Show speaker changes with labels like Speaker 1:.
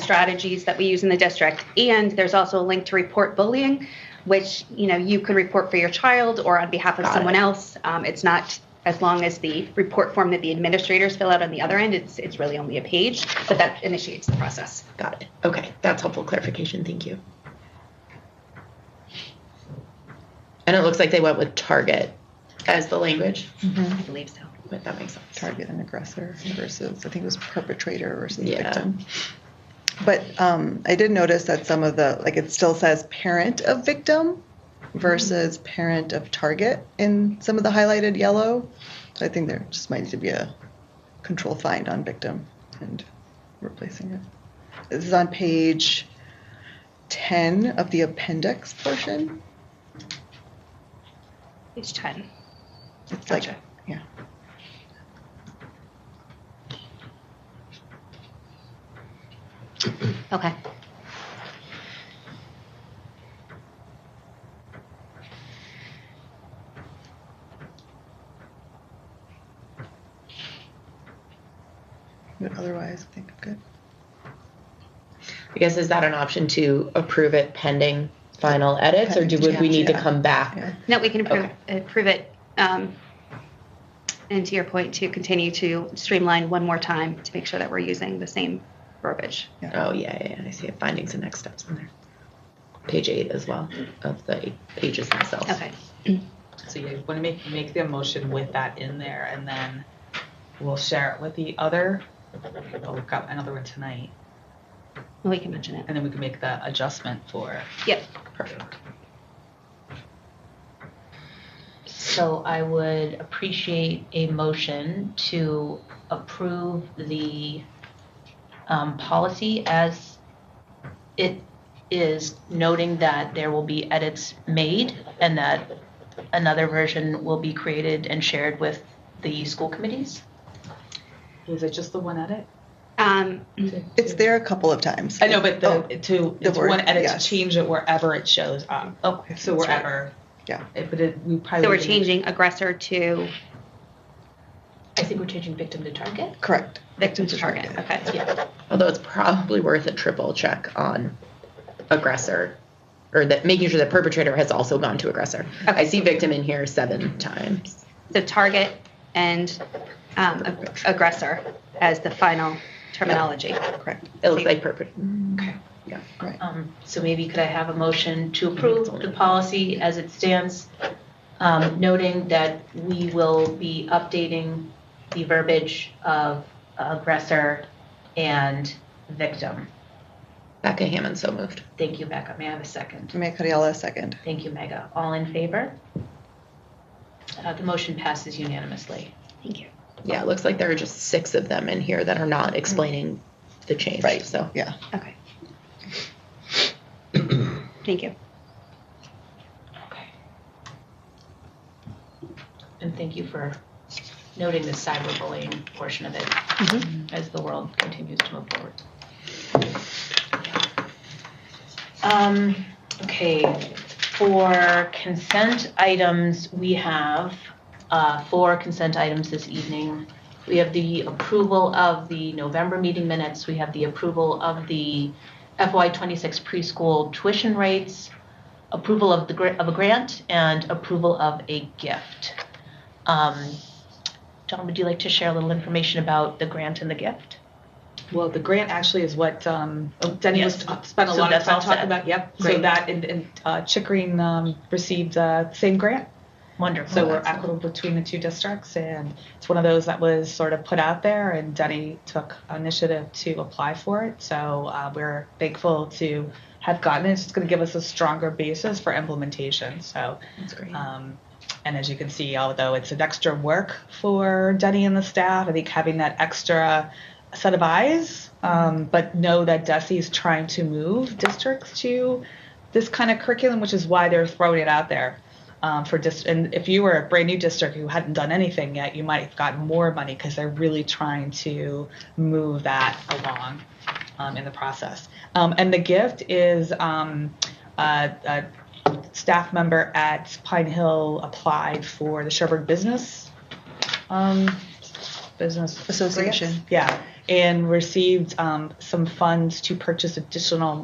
Speaker 1: strategies that we use in the district. And there's also a link to report bullying, which you know you can report for your child or on behalf of
Speaker 2: Got
Speaker 1: someone
Speaker 2: it.
Speaker 1: else. Um, it's not as long as the report form that the administrators fill out on the other end. It's it's really only a page, but that initiates the process.
Speaker 2: Got it. Okay, that's helpful clarification. Thank you. And it looks like they went with target as the language,
Speaker 1: I believe so.
Speaker 2: but that makes sense.
Speaker 3: target and aggressor versus, I think it was perpetrator versus
Speaker 2: Yeah.
Speaker 3: victim. But um, I did notice that some of the, like, it still says parent of victim versus parent of target in some of the highlighted yellow. So I think there just might need to be a control find on victim and replacing it. This is on page 10 of the appendix portion.
Speaker 1: Page ten.
Speaker 3: It's like,
Speaker 1: Gotcha.
Speaker 3: yeah.
Speaker 1: Okay.
Speaker 3: But otherwise, I think I'm good.
Speaker 2: I guess is that an option to approve it pending final edits, or do would we need to come back?
Speaker 3: Yeah.
Speaker 1: No, we can approve,
Speaker 2: Okay.
Speaker 1: approve it. Um, and to your point, to continue to streamline one more time to make sure that we're using the same verbiage.
Speaker 2: Oh yeah, yeah, yeah, I see it. Findings and next steps in there. Page eight as well of the pages themselves.
Speaker 1: Okay.
Speaker 4: So you want to make, make the motion with that in there and then we'll share it with the other. Oh, we've got another one tonight
Speaker 1: Well, we can mention it.
Speaker 4: and then we can make the adjustment for.
Speaker 1: Yep.
Speaker 4: Perfect.
Speaker 5: So I would appreciate a motion to approve the um, policy as it is noting that there will be edits made and that another version will be created and shared with the school committees.
Speaker 4: Is it just the one edit?
Speaker 1: Um,
Speaker 3: It's there a couple of times.
Speaker 4: I know, but the,
Speaker 3: Oh,
Speaker 4: to,
Speaker 3: the
Speaker 4: it's
Speaker 3: word,
Speaker 4: one edit
Speaker 3: yes.
Speaker 4: to change it wherever it shows up.
Speaker 5: Okay.
Speaker 4: So
Speaker 3: That's right.
Speaker 4: wherever.
Speaker 3: Yeah.
Speaker 4: It- But it, we probably.
Speaker 1: so we're
Speaker 4: need-
Speaker 1: changing aggressor to
Speaker 5: I think we're changing victim to target.
Speaker 3: Correct.
Speaker 1: victim to target. Okay.
Speaker 5: Yeah.
Speaker 2: Although it's probably worth a triple check on aggressor, or that making sure that perpetrator has also gone to aggressor. I see victim in here seven times.
Speaker 1: So target and um, ag- aggressor as the final terminology.
Speaker 3: Correct.
Speaker 2: It looks like perpetrator.
Speaker 4: Okay.
Speaker 3: Right.
Speaker 5: Um, So maybe could I have a motion to approve the policy as it stands, um, noting that we will be updating the verbiage of aggressor and victim?
Speaker 2: Becca Hammond so moved.
Speaker 5: Thank you, Becca. May I have a second?
Speaker 3: Mia Cardiola, second.
Speaker 5: Thank you, Mega. All in favor? Uh, The motion passes unanimously.
Speaker 1: Thank you.
Speaker 2: Yeah, it looks like there are just six of them in here that are not explaining the change.
Speaker 3: Right.
Speaker 2: So
Speaker 3: Yeah.
Speaker 1: Okay. Thank you.
Speaker 5: Okay. And thank you for noting the cyberbullying portion of it as the world continues to move forward. Um, okay, for consent items, we have, uh, four consent items this evening. We have the approval of the November meeting minutes, we have the approval of the FY twenty-six preschool tuition rates, approval of the, gra- of a grant, and approval of a gift. Um, John, would you like to share a little information about the grant and the gift?
Speaker 4: Well, the grant actually is what um, Denny was
Speaker 5: Yes.
Speaker 4: spent a
Speaker 5: So
Speaker 4: lot of
Speaker 5: that's
Speaker 4: time
Speaker 5: all
Speaker 4: talking
Speaker 5: set.
Speaker 4: about. Yep. So
Speaker 5: Great.
Speaker 4: that and, and uh, Chickering um, received uh, same grant.
Speaker 5: Wonderful.
Speaker 4: So we're equitable between the two districts, and it's one of those that was sort of put out there, and Denny took initiative to apply for it. So uh, we're thankful to have gotten it. It's just going to give us a stronger basis for implementation. So,
Speaker 2: that's great.
Speaker 4: um, and as you can see, although it's an extra work for Denny and the staff, I think having that extra set of eyes, um, but know that Desi's trying to move districts to this kind of curriculum, which is why they're throwing it out there. Um, for dist- and if you were a brand new district who hadn't done anything yet, you might have gotten more money because they're really trying to move that along um, in the process. Um, and the gift is um, uh, a staff member at Pine Hill applied for the Sherburne Business um, Business
Speaker 3: Association.
Speaker 4: yeah. and received um, some funds to purchase additional